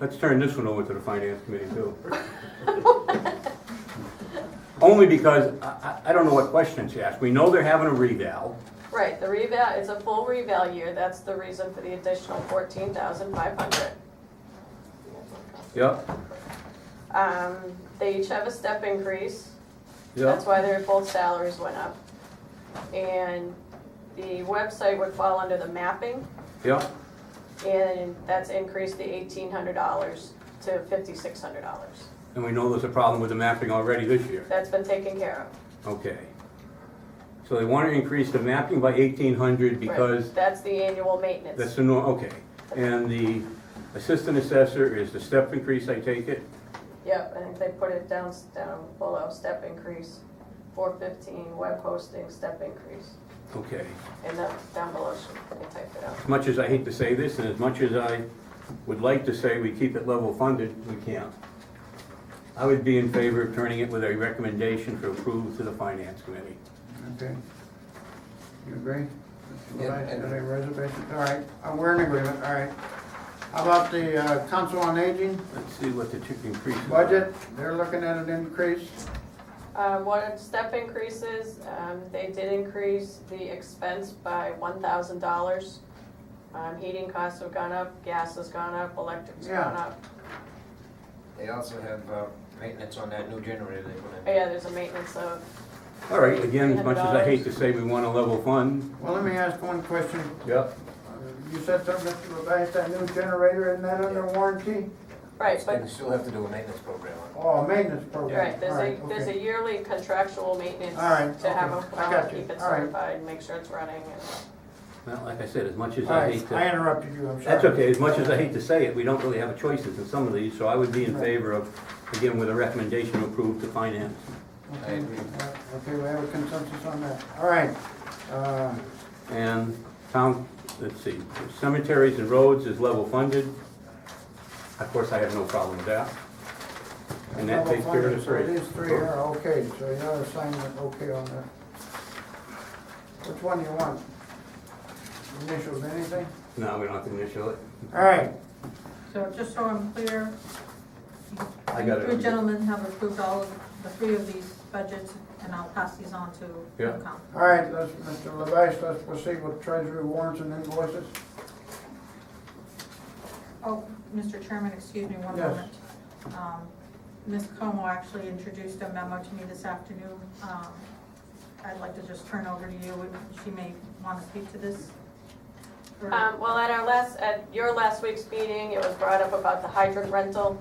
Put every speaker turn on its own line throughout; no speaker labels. Let's turn this one over to the finance committee too. Only because I, I, I don't know what questions to ask. We know they're having a reval.
Right, the reval, it's a full reval year, that's the reason for the additional fourteen thousand five hundred.
Yep,
Um, they each have a step increase, that's
yep.
why their both salaries went up. And the website would fall under the mapping,
Yep,
and that's increased the eighteen hundred dollars to fifty-six hundred dollars.
and we know there's a problem with the mapping already this year.
That's been taken care of.
Okay. So they want to increase the mapping by eighteen hundred
Right,
because
That's the annual maintenance.
that's the norm, okay. And the assistant assessor is the step increase, I take it?
Yep, I think they put it down, down below, step increase, four fifteen, web hosting, step increase.
Okay.
And that, down below, should, they typed it out.
As much as I hate to say this, and as much as I would like to say we keep it level funded, we can't. I would be in favor of turning it with a recommendation for approval to the finance committee.
Okay. You agree? That's what I
Yeah,
said,
and-
I reservation, all right, Uh, we're in agreement, all right. How about the uh, Council on Aging
Let's see what the two increase. is.
budget? They're looking at an increase.
Um, what are step increases, um, they did increase the expense by one thousand dollars. Um, heating costs have gone up, gas has gone up, electric's
Yeah.
gone up.
They also have uh, maintenance on that new generator they put in.
Oh, Yeah, there's a maintenance of,
All right, again, as much as I hate to say we want a level fund.
Well, let me ask one question.
Yep.
Uh, You said something, Mr. Levesque, that new generator, isn't that under warranty?
right,
But
but,
you still have to do a maintenance program on it.
Oh, maintenance program.
right, there's a,
All right,
there's a
okay.
yearly contractual maintenance
All right,
to have
okay.
them
I
come
got
out,
you.
keep it
All right.
certified, make sure it's running and.
Well, like I said, as much as
All
I hate
right, I
to,
interrupted you, I'm sorry.
that's okay, as much as I hate to say it, we don't really have choices in some of these, so I would be in favor of, again, with a recommendation approved to finance.
I
Okay,
agree.
uh, okay, we have a consensus on that. All right. Uh,
And town, let's see, cemeteries and roads is level funded. Of course, I have no problem with that. And that takes care of the
So
three.
these three are okay, so you have assignment okay on that. Which one do you want? Initials, anything?
No, we don't have to initial it.
All right,
So just so I'm clear,
I
you
got
three
it.
gentlemen have approved all of the three of these budgets, and I'll pass these on to
Yeah.
FinCom.
all right, let's, Mr. Levesque, let's proceed with treasury warrants and invoices.
Oh, Mr. Chairman, excuse me one
Yes.
moment. Um, Ms. Como actually introduced a memo to me this afternoon. Um, I'd like to just turn over to you, and she may want to speak to this. or-
Um, well, at our last, at your last week's meeting, it was brought up about the hydrant rental,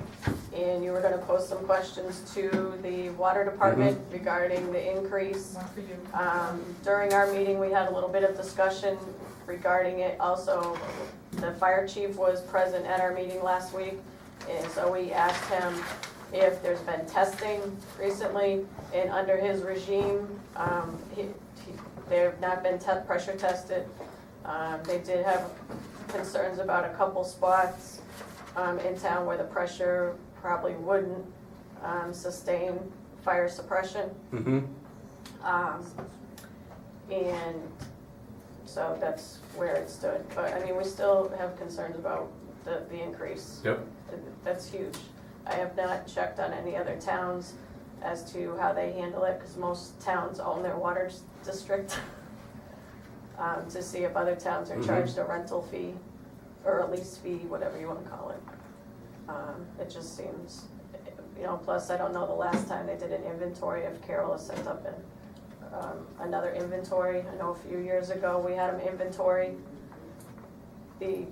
and you were gonna pose some questions to the water department regarding the increase.
One for you.
Um, during our meeting, we had a little bit of discussion regarding it, also, the fire chief was present at our meeting last week, and so we asked him if there's been testing recently, and under his regime, um, he, he, they've not been te- pressure tested. Um, they did have concerns about a couple spots, um, in town where the pressure probably wouldn't, um, sustain fire suppression.
Mm-hmm.
Um, and so that's where it stood, but I mean, we still have concerns about the, the increase.
Yep.
That's huge. I have not checked on any other towns as to how they handle it, because most towns own their water s- district. Um, to see if other towns are
Mhm.
charged a rental fee, or a lease fee, whatever you wanna call it. Um, it just seems, you know, plus I don't know the last time they did an inventory if Carol has sent up an um, another inventory. I know a few years ago, we had them inventory the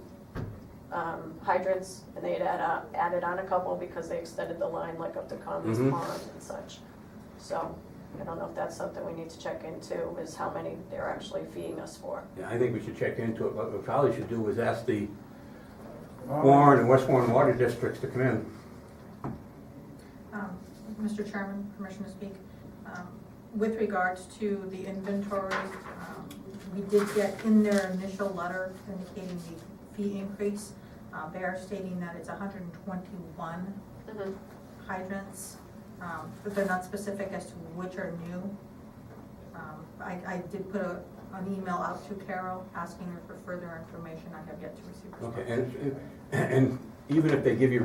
um, hydrants, and they had add on- added on a couple because they extended the line like up to Commons
Mhm.
Pond and such. So I don't know if that's something we need to check into, is how many they're actually feeing us for.
Yeah, I think we should check into it, but what we probably should do is ask the
All right.
Warren and West Warren Water Districts to come in.
Um, Mr. Chairman, permission to speak. Um, With regards to the inventories, um, we did get in their initial letter indicating the fee increase. uh, They are stating that it's hundred and twenty-one hydrants, um, but they're not specific as to which are new. Um, I, I did put a, an email out to Carol asking her for further information. I have yet to receive. response.
Okay, and, and- and even if they give you